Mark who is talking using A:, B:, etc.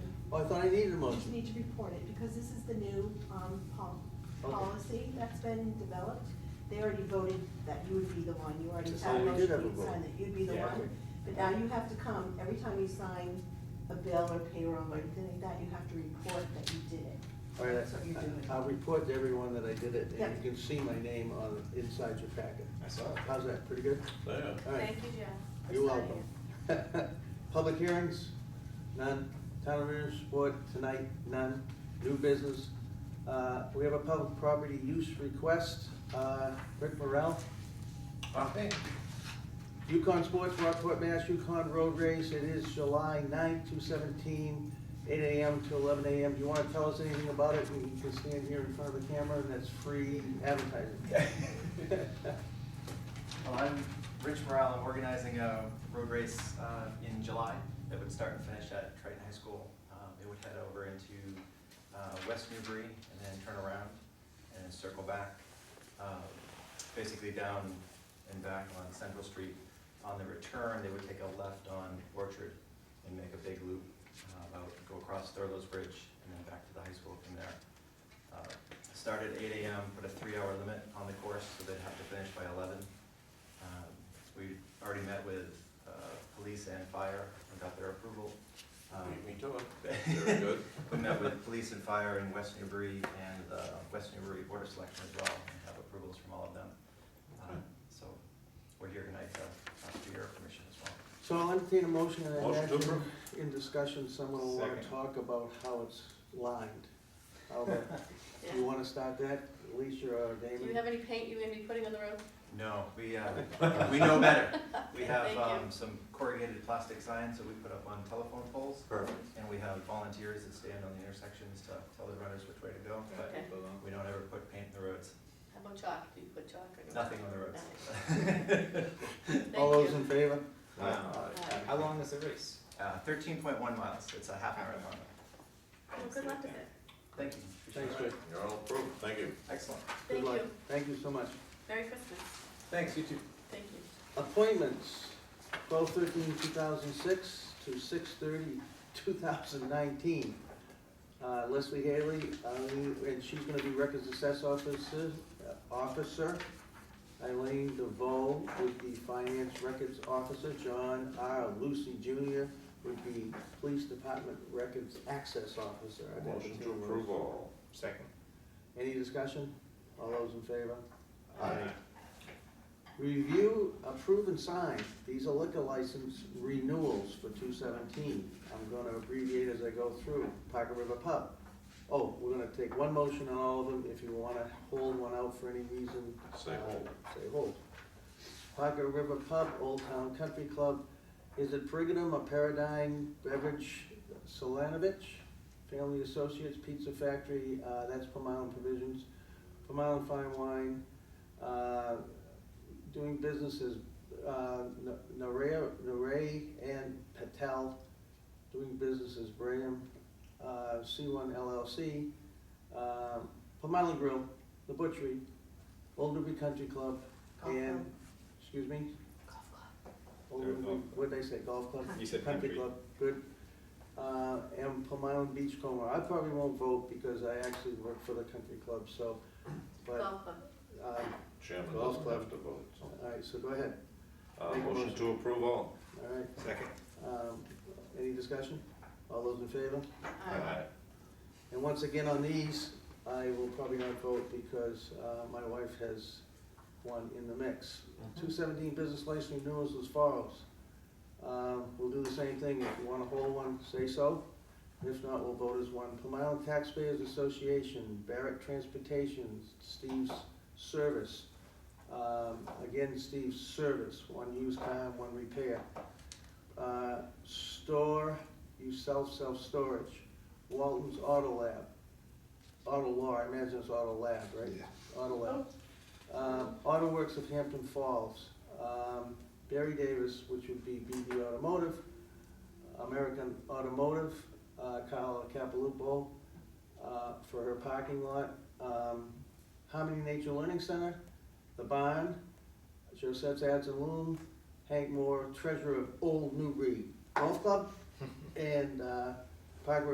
A: Oh, I thought I needed a
B: You just
A: motion.
B: need to report it, because this is the new, um, pol-
A: Okay.
B: policy that's been developed. They already voted that you would be the one, you already
A: Yes,
B: had a
A: we did
B: motion,
A: have a
B: you
A: vote.
B: signed that you'd be the
A: Yeah.
B: one. But now you have to come, every time you sign a bill or payroll or anything like that, you have to report that you did it.
A: All right,
B: That's what you're doing.
A: I- I'll report to everyone that I did it,
B: Yeah.
A: and you can see my name on, inside your packet.
C: I saw it.
A: How's that, pretty good?
C: Yeah.
A: All right.
D: Thank you, Jeff.
A: You're welcome. Public hearings, none. Town administrator's report tonight, none. New business, uh, we have a public property use request, uh, Rick Morrell.
C: Okay.
A: Yukon Sports, Rockport, Mass. Yukon Road Race, it is July 9th, 2017, 8 AM to eleven AM. Do you wanna tell us anything about it? You can stand here in front of the camera, and that's free advertising.
E: Well, I'm Rich Morale, I'm organizing a road race uh, in July that would start and finish at Triton High School. Um, It would head over into uh, West Newbury and then turn around and then circle back, um, basically down and back on Central Street. On the return, they would take a left on Orchard and make a big loop uh, out, go across Thurlow's Bridge and then back to the high school from there. Uh, Start at eight AM, put a three-hour limit on the course, so they'd have to finish by eleven. Um, We already met with uh, police and fire and got their approval. Um,
C: Me too. Very good.
E: We met with police and fire in West Newbury and the West Newbury Board of Selectmen as well, and have approvals from all of them. Uh, So we're here tonight to ask for your permission as well.
A: So I'll entertain a motion and then
C: Motion to
A: action. In discussion, someone will wanna
E: Second.
A: talk about how it's lined. How about, you wanna start that, Alicia or
D: Do you
A: Damon?
D: have any paint you're gonna be putting on the road?
E: No, we, uh, we know better. We have
D: Thank
E: um,
D: you.
E: some corrugated plastic signs that we put up on telephone poles,
C: Perfect.
E: and we have volunteers that stand on the intersections to tell the runners which way to go, but
D: Okay.
E: we don't ever put paint in the roads,
D: How about chalk? Do you put chalk or?
E: nothing on the roads.
D: Thank
A: All those in
D: you.
A: favor?
E: Uh,
D: Aye.
F: How long is the race?
E: Uh, thirteen point one miles, it's a half marathon.
D: Well, good luck with it.
E: Thank you.
A: Thanks, Rick.
C: You're all approved, thank you.
E: Excellent.
A: Good
D: Thank
A: luck.
D: you.
A: Thank you so much.
D: Merry Christmas.
E: Thanks, you too.
D: Thank you.
A: Appointments, 12-13-2006 to 6-30-2019. Uh, Leslie Haley, Eileen- and she's gonna be records assess officer, uh, officer. Eileen DeVoe would be finance records officer, John R. Lucy Junior would be police department records access officer. I'd
C: Motion to
A: entertain those.
C: approve all.
F: Second.
A: Any discussion? All those in favor?
C: Aye.
A: Review, approve, and sign. These are liquor license renewals for two seventeen. I'm gonna abbreviate as I go through. Parker River Pub. Oh, we're gonna take one motion on all of them. If you wanna hold one out for any reason.
C: Say
A: uh,
C: hold.
A: Say hold. Parker River Pub, Old Town Country Club. Is it Brigadam or Paradigm Beverage Solanovich? Family Associates Pizza Factory, uh, that's Plum Island Provisions. Plum Island Fine Wine, uh, doing business as uh, N- Naray Naray and Patel, doing business as Bram, uh, C1 LLC, uh, Plum Island Grill, The Butchery, Old Newbury Country Club,
B: Golf
A: and,
B: club.
A: excuse me?
B: Golf club.
A: Old
F: Or
A: Newbury-
F: golf
A: What'd I say, golf club?
F: You said country.
A: club, good. Uh, and Plum Island Beach Coma. I probably won't vote because I actually work for the country club, so, but,
D: Golf club.
A: uh,
C: Chairman
A: Well,
C: doesn't have to vote, so.
A: all right, so go ahead,
C: Uh,
A: Make a
C: motion
A: motion.
C: to approve all.
A: all right.
F: Second.
A: Um, Any discussion? All those in favor?
D: Aye.
A: And once again, on these, I will probably not vote because uh, my wife has one in the mix. Two seventeen business license renewals as follows. Um, We'll do the same thing. If you want to hold one, say so. If not, we'll vote as one. Plum Island Taxpayers Association, Barrett Transportation, Steve's Service. Um, Again, Steve's Service, one used car, one repair. Uh, Store, you self, self-storage. Walton's Auto Lab. Auto Law, I imagine it's Auto Lab, right? Auto Lab. Um, Auto Works of Hampton Falls, um, Barry Davis, which would be BB Automotive, American Automotive, uh, Carla Capalupo, uh, for her parking lot, um, Harmony Nature Learning Center, The Barn, Joseph's Ads and Loom, Hank Moore, treasurer of Old Newbury Golf Club, and, uh, Parker